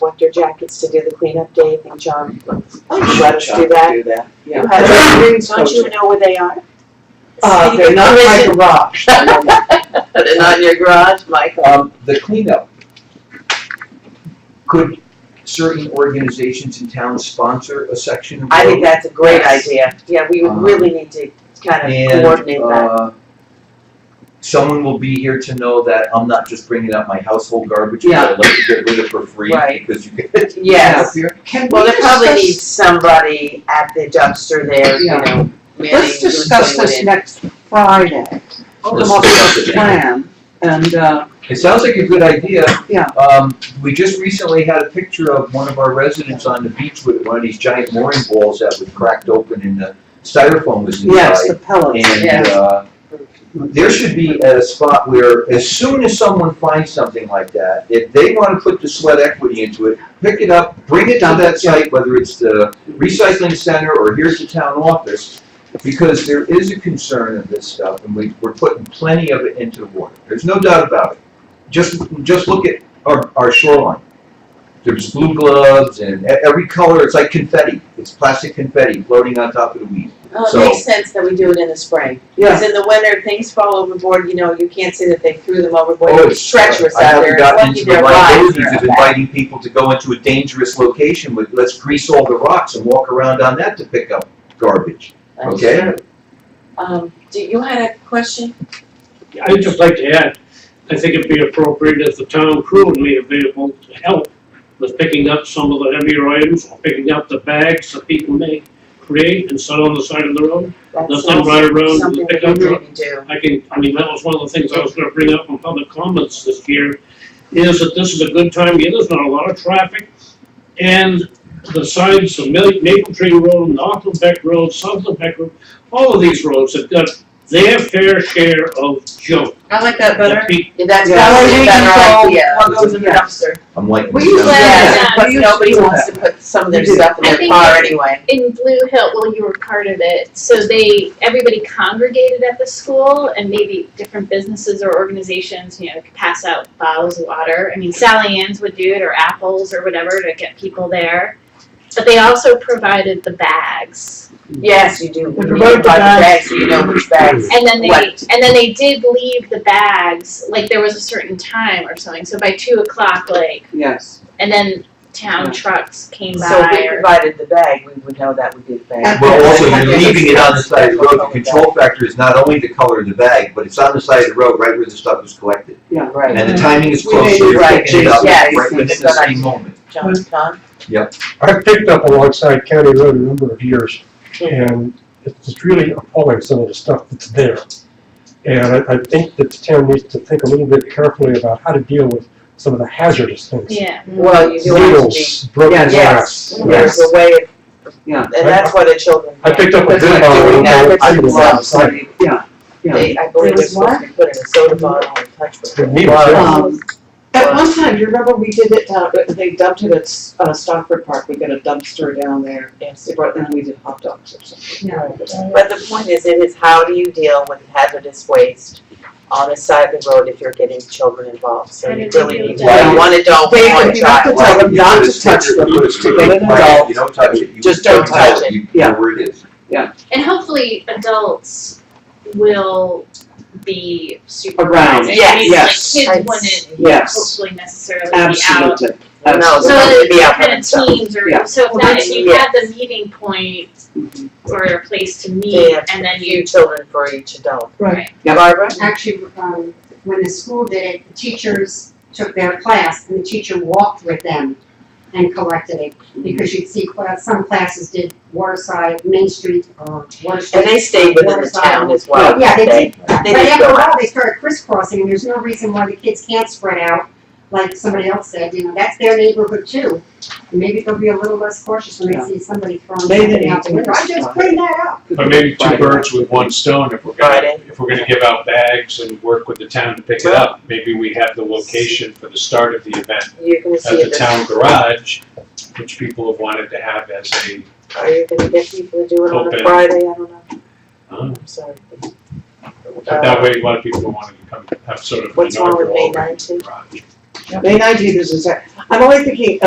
winter jackets to do the cleanup day, I think John let Let us do that. Do that, You yeah. have the roots, don't you know where they are? Uh, they're not my garage. They're not in your garage, Michael. Um, the cleanup. Could certain organizations in town sponsor a section of road? I think that's a great Yes. idea, yeah, we Um, really need to kind of coordinate And, that. uh, someone will be here to know that I'm not just bringing up my household garbage, Yeah. that I like to get rid of for free, Right. because you get. Yes, Can well, we they probably need discuss, somebody at the dumpster there, you Yeah. know, let's discuss this next Friday. Oh, The let's most discuss it now. plan, and, uh, It sounds like a good idea. Yeah. Oh, Um, we just recently had a picture of one of our residents on the beach with one of these giant mooring balls that was cracked open and the styrofoam was inside. yes, the pellets, And, uh, there should be a spot where as soon as someone finds something like that, if they wanna put the sweat equity into it, pick it up, bring it to that site, whether it's the recycling center or here's the town office. Because there is a concern of this stuff and we, we're putting plenty of it into the water. There's no doubt about it. Just, just look at our, our shoreline. There's blue gloves and e- every color, it's like confetti. It's plastic confetti floating on top of the weed. Oh, So- it makes sense that we do it in the spring. yeah. Because in the winter, things fall overboard, you know, you can't say that they threw them overboard, Oh, it's treacherous I out there, haven't it's gotten lucky into the their lives liabilities are of up there. inviting people to go into a dangerous location with, let's grease all the rocks and walk around on that to pick up garbage, okay? Um, do, you had a question? I'd just like to add, I think it'd be appropriate if the town crew would be available to help with picking up some of the heavier items, or picking up the bags that people may create and set on the side of the road. That's Let them ride around Something and we pick up. can maybe do. I can, I mean, that was one of the things I was gonna bring up in public comments this year, is that this is a good time, yeah, there's not a lot of traffic. And the sides of Mil- Maple Tree Road, North Beck Road, South Beck Road, all of these roads have got their fair share of junk. I like that that people Yeah, That's Yeah. probably a Yeah. better idea. What goes in the dumpster? I'm like, We usually um, have- Yeah, Yeah, but we used to nobody do wants to put some of their We did. stuff in I their think car it's- anyway. in Blue Hill, well, you were part of it, so they, everybody congregated at the school and maybe different businesses or organizations, you know, could pass out bottles of water. I mean, Sally Ann's would do it or Apples or whatever to get people there. But they also provided the bags. Mm. Yes, you do, We you buy promote the the bags, bags. so you know which bags. And then they, Right. and then they did leave the bags, like there was a certain time or something, so by two o'clock, like, yes. and then town Yeah. trucks came by So if we or- provided the bag, we would know that would be the bag. Well, also, I you're think leaving it it's- on the side of the road, the Okay. control factor is not only the color of the bag, but it's on the side of the road, right where the stuff is collected. Right. And the timing is We close, made so it you're right, picking it up yes, right within yes, the yes. same moment. John, John? I picked up alongside County Road a number of years, and it's it's really appalling some of the stuff that's there. And I, I think that the town needs to think a little bit carefully about how to deal with some of the hazardous things. Yeah. Well, you do have to be. Needles, broken glass. Yes, there's a way of. Yeah. And that's what the children. I picked up a That's good what bottle. we of have. old I needles love outside. somebody- Yeah, yeah. They, I believe they're There's supposed to be put in a soda bottle and touch with The it. needles, yeah. Um, At one time, you remember we did it, down- they dumped it at S- uh, Stockford Park, we got a dumpster down there, Yes. they brought- and we did hot dogs or something. But the point is, it is how do you deal with hazardous waste on the side of the road if you're getting children involved? So How you do they really deal need with to that? have one adult, They- one you have to child. tell them You not put a to touch sticker, them. you put a sticker, They don't right, touch. You don't touch it, you Just don't don't tell touch it, you Yeah. know where it is. And hopefully adults will be Around, supervised. I yes, mean, yes. Like I'd kids wouldn't Yes, hopefully necessarily be out. absolutely, Well, no, So They're not gonna that be out by kind of themselves. teams or, Yeah. so if Well, that, that's- if you had the meeting point absolutely. or a place to They meet have and then few you, children for each adult. right, Yeah. Barbara? actually, um, when the school did it, the teachers took their class and the teacher walked with them and collected it. Because you'd see, cla- some classes did Waterside, Main Street, or Water And Street. they stayed within the town as well. Yeah, they didn't did, but They didn't after a go while, they started crisscrossing, and there's no reason why the kids can't spread out, like somebody else said, you know, that's their neighborhood too. And Maybe they'll be a little less cautious when they Yeah. see somebody throwing They something didn't out the window, I just criticize. cleaned that up. But maybe two birds with one stone, if we're gonna, Friday. if we're gonna give out bags and work with the town to pick it up, maybe we have the location for the start of the event You're gonna at see the this, town garage, which people have wanted to have as a, are you gonna get people to do it on a Open. Friday? I don't know, um, I'm sorry. but that way a lot of people wanted to come, have sort of an What's wrong with inaugural May garage. May nineteenth is, a Sat- I'm only thinking,